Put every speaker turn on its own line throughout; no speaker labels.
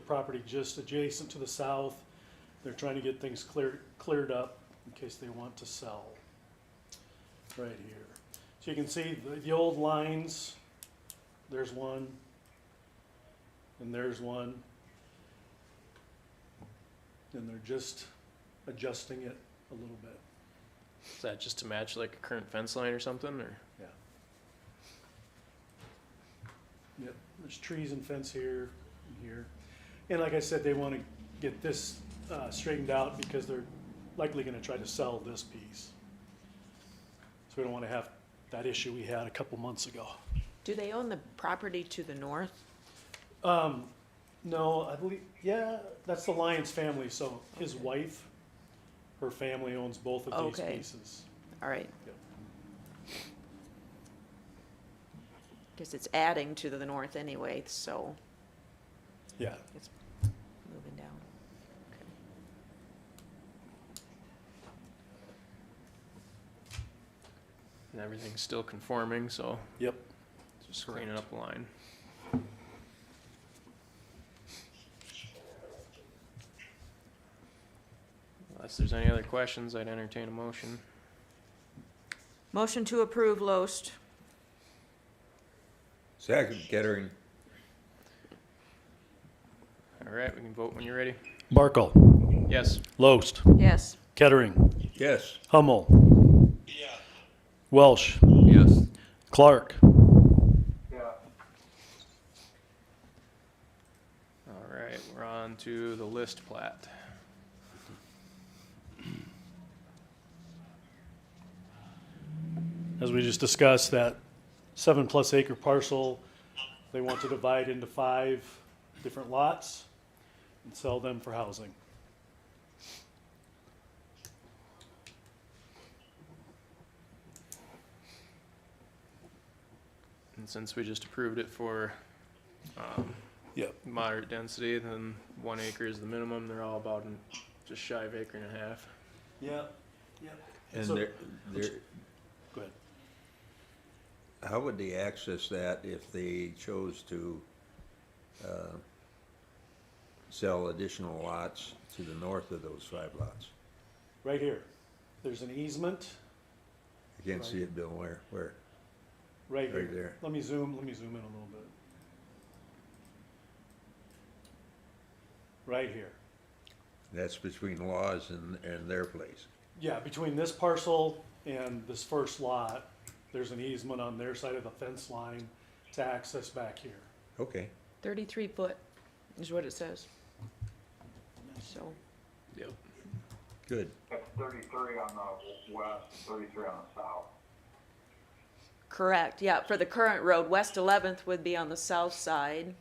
property just adjacent to the south. They're trying to get things cleared, cleared up in case they want to sell. Right here. So you can see the, the old lines, there's one, and there's one. And they're just adjusting it a little bit.
Is that just to match like a current fence line or something, or?
Yep, there's trees and fence here and here. And like I said, they want to get this uh, straightened out because they're likely going to try to sell this piece. So we don't want to have that issue we had a couple months ago.
Do they own the property to the north?
Um, no, I believe, yeah, that's the Lyons family, so his
Okay.
wife, her family owns both of these
Okay.
pieces.
All right.
Yep.
Because it's adding to the north anyway, so
Yeah,
moving down. Okay.
And everything's still conforming, so
yep.
just cleaning up the line. Unless there's any other questions, I'd entertain a motion.
Motion to approve Loest.
Second, Kettering.
All right, we can vote when you're ready.
Barkle,
Yes.
Loest,
Yes.
Kettering,
Yes.
Hummel. Welsh,
Yes.
Clark.
All right, we're on to the list plat.
as we just discussed, that seven plus acre parcel, they want to divide into five different lots and sell them for housing.
And since we just approved it for, um,
Yep.
moderate density, then one acre is the minimum, they're all about an- just shy of acre and a half.
Yeah.
And
So-
there, there,
Go ahead.
how would they access that if they chose to, uh, sell additional lots to the north of those five lots?
Right here. There's an easement
I can't see it, Bill, where, where?
right
Right
here.
there.
Let me zoom, let me zoom in a little bit. Right here.
That's between laws and, and their place.
Yeah, between this parcel and this first lot, there's an easement on their side of the fence line to access back here.
Okay.
Thirty-three foot is what it says. So,
Yep.
Good.
That's thirty-three on the west, thirty-three on the south.
correct, yeah, for the current road, West Eleventh would be on the south side.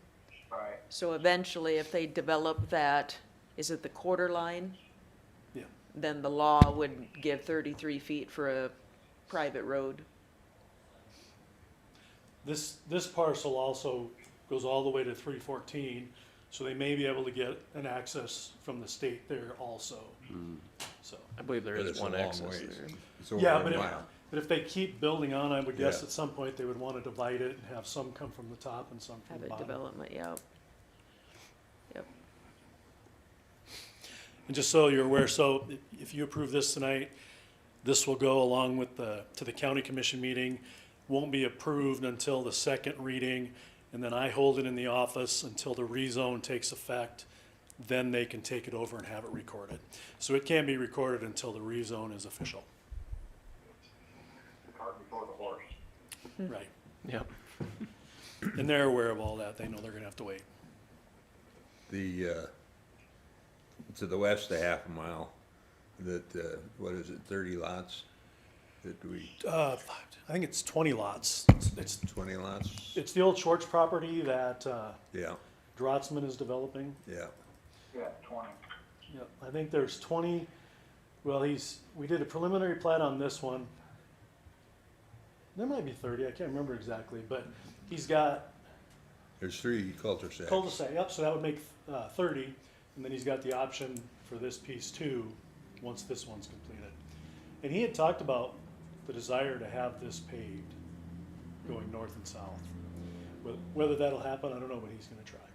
Right,
So eventually, if they develop that, is it the quarter line?
Yeah.
Then the law would give thirty-three feet for a private road.
This, this parcel also goes all the way to three fourteen, so they may be able to get an access from the state there also. So,
I believe there
But
is
it's a
one
long
access
ways.
there.
It's over
yeah,
a
but if,
mile.
but if they keep building on, I would guess
Yeah.
at some point they would want to divide it and have some come from the top and some from
Have
the
a
bottom.
development, yeah.
And just so you're aware, so if you approve this tonight, this will go along with the, to the county commission meeting. Won't be approved until the second reading, and then I hold it in the office until the rezone takes effect. Then they can take it over and have it recorded. So it can be recorded until the rezone is official,
the cart before the horse.
right?
Yep.
And they're aware of all that. They know they're gonna have to wait.
The, uh, to the west a half a mile, that, uh, what is it, thirty lots? That we,
Uh, I think it's twenty lots. It's,
twenty lots?
it's the old Schwartz property that, uh,
Yeah,
Drotzman is developing.
yeah.
Yeah, twenty.
Yep, I think there's twenty, well, he's, we did a preliminary plat on this one. There might be thirty, I can't remember exactly, but he's got
There's three cul-de-sacs.
cul-de-sac, yep, so that would make, uh, thirty. And then he's got the option for this piece too, once this one's completed. And he had talked about the desire to have this paved, going north and south. Wh- Whether that'll happen, I don't know, but he's gonna try.